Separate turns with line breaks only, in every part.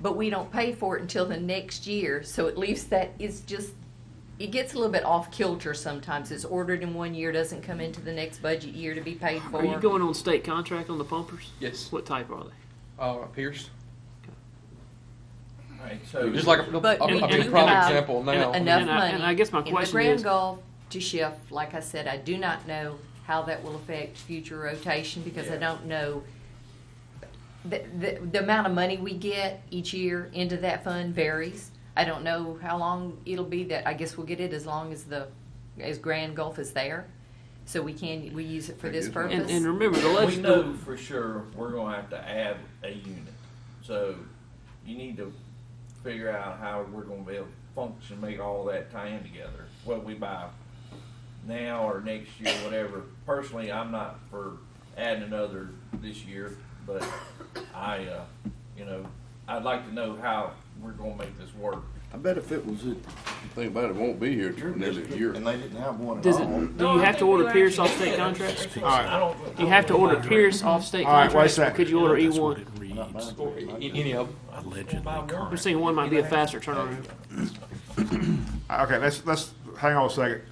but we don't pay for it until the next year. So it leaves that, it's just, it gets a little bit off kilter sometimes. It's ordered in one year, doesn't come into the next budget year to be paid for.
Are you going on state contract on the pumpers?
Yes.
What type are they?
Uh, Pierce.
Alright, so.
Just like a, a,
But
a,
we
a
do
big prime
have
example now.
en- Enough
And I-
money.
and I guess my
In the
question
Grand
is-
Gulf to shift, like I said, I do not know how that will affect future rotation because I
Yeah.
don't know. The, the, the amount of money we get each year into that fund varies. I don't know how long it'll be that, I guess we'll get it as long as the, as Grand Gulf is there. So we can, we use it for this
Very
purpose.
And, and remember the
We know
legislative,
for sure we're gonna have to add a unit, so you need to figure out how we're gonna be able to function, make all that tie in together, what we buy now or next year, whatever. Personally, I'm not for adding another this year, but I, uh, you know, I'd like to know how we're gonna make this work.
I bet if it was, it- if you think about it, it won't be here till nearly a year.
And they didn't have one at
does
all.
it, do you have to order Pierce off state contracts?
I don't.
Do you have to order Pierce off state
All right,
contracts?
wait a
Or
second.
Could you order E one?
Not mine.
Or a- any of them.
Allegedly
I'm saying one might be a faster turnaround.
Okay, let's, let's, hang on a second.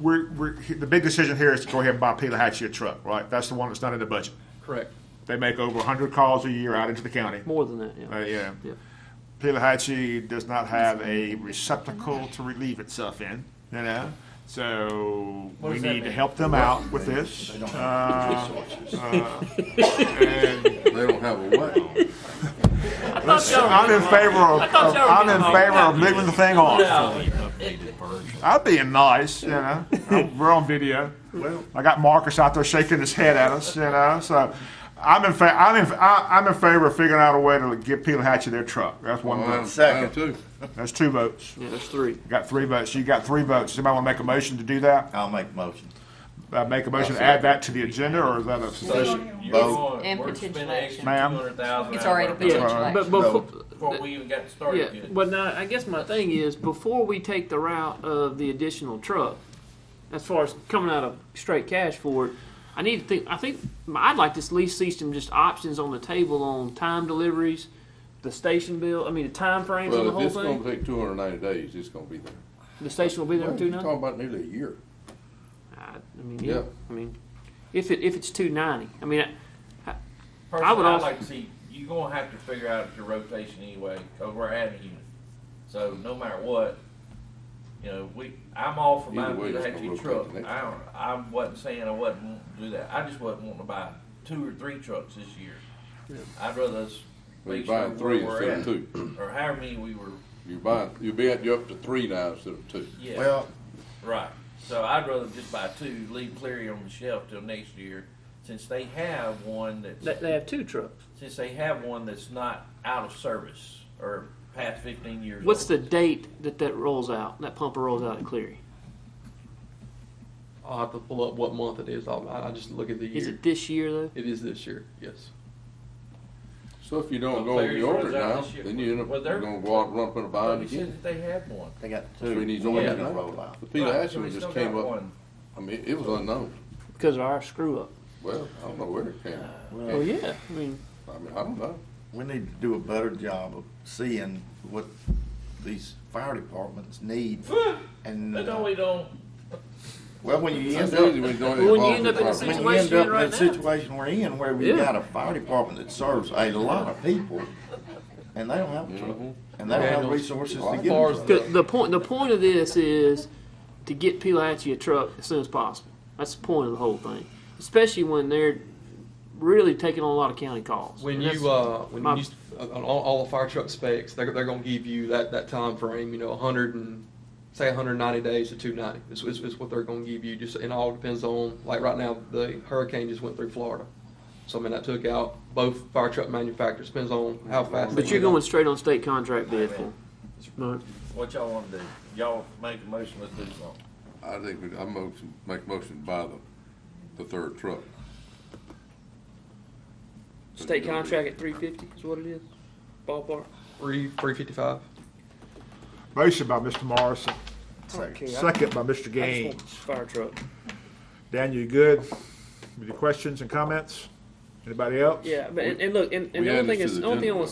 We're, we're, the big decision here is to go ahead and buy Pila Hatchie a truck, right? That's the one that's not in the budget.
Correct.
They make over hundred calls a year out into the county.
More than that,
Uh,
yeah.
yeah.
Yeah.
Pilahatchee does not have a receptacle to relieve itself in, you know? So
What
we
does that
need to
mean?
help them out with this.
They don't
Uh,
have resources.
and
They don't have a what?
I'm in favor of, of- I'm in favor of moving the thing on. I'm being nice, you know? I'm- We're on video.
Well,
I got Marcus out there shaking his head at us, you know. So I'm in fa- I'm in I, I'm in favor of figuring out a way to get Pilahatchee their truck. That's one
I'm,
vote.
i
Second.
too.
That's two votes.
Yeah, there's three.
You got three votes. You got three votes. Somebody want to make a motion to do that?
I'll make the motion.
Uh, make a motion to add that to the agenda, or is that a?
And
We're spending
potential action.
extra
Ma'am?
$200,000
It's already
out of
been
our budget
Yeah, but
No.
before,
Before we even got
Yeah,
started good.
but now I guess my thing is before we take the route of the additional truck, as far as coming out of straight cash for it, I need to think. I think I'd like to at least see some just options on the table on time deliveries, the station bill. I mean the time frames on the
Well, if
whole
it's gonna
thing.
take two hundred and ninety days, it's gonna be there.
The station will be there
Well,
in
you're
two
talking
ninety.
about nearly a year.
I, I mean, yeah.
Yeah.
I mean, if it if it's two ninety, I mean, I- I would
Personally, I'd
also-
like to see, you're gonna have to figure out your rotation anyway, cause we're adding a unit. So no matter what, you know, we, I'm all for buying
Either way,
a
it's gonna
Hatchie
rotate
truck.
the next
I don't, I wasn't saying I wasn't wanting to do that. I just wasn't wanting to buy two or three trucks this year. I'd rather us
You're
make sure
buying three
where we're
instead of
at,
two.
or however many we were,
You're buying, you'll be at, you're up to three now instead of two.
yeah.
Well,
Right. So I'd rather just buy two, leave Cleary on the shelf till next year, since they have one
they,
that's,
they have two trucks.
since they have one that's not out of service or past fifteen years.
What's the
old.
date that that rolls out? That pumper rolls out at Cleary.
I'll have to pull up what month it is. I'll, I I just look at the
Is
year.
it this year though?
It is this year, yes.
So if you don't
Well,
go and
Clary's
you order it
runs out
now,
this year.
then you end up,
Well,
you're
they're-
gonna go out and run up in a
Well,
bind
you
again.
said that they had one.
they got
So
two.
we need
Yeah,
one
they're
now.
gonna roll out.
The
Right,
Pila
so
Hatchie
we
one just
still
came
got
up,
one.
I mean, it was unknown.
Because of our screw up.
Well, I don't know where it came.
Oh
Well,
yeah, I mean.
I mean, I don't know.
we need to do a better job of seeing what these fire departments need and. uh,
No, we don't.
Well, when you
That's
end
usually
up,
when you don't
Well, when you
involve
end
the
up in a
property.
when
Situation
you end
you're
up
in
in
right
the
now.
situation we're in, where we
Yeah.
got a fire department that serves a lot of people, and they don't have a truck,
Mhm.
and they don't have
Daniels.
resources to
As
get
far
a
as
truck.
The, the point the point of this is to get Pilahatchee a truck as soon as possible. That's the point of the whole thing, especially when they're really taking on a lot of county calls.
When
And
you,
that's-
uh, when
my-
you, s- on on all, all the fire truck specs, they're, they're gonna give you that, that frame. you know, hundred and, say hundred and ninety days to two ninety, is, is, is what they're gonna give you, just, and all depends on, like right now, the hurricane just went through Florida. So I mean, that took out both fire truck manufacturers, depends on how fast. they
but you're
get out.
going straight on state contract bid for. 'em. Right.
What y'all wanna do? Y'all make a motion, let's do something.
I think we, I motion, make motion to buy the, the third truck.
State contract at three fifty is what it is, ballpark.
Three, three fifty-five.
Motion by Mr. Morrison,
I don't care. I-
second by Mr.
I just
Gaines.
want this fire truck.
Daniel, you good? Any questions and comments? Anybody else?
Yeah, but and, and look, and, and
We
the only
added
thing
to
is,
the
the only thing I
general.
want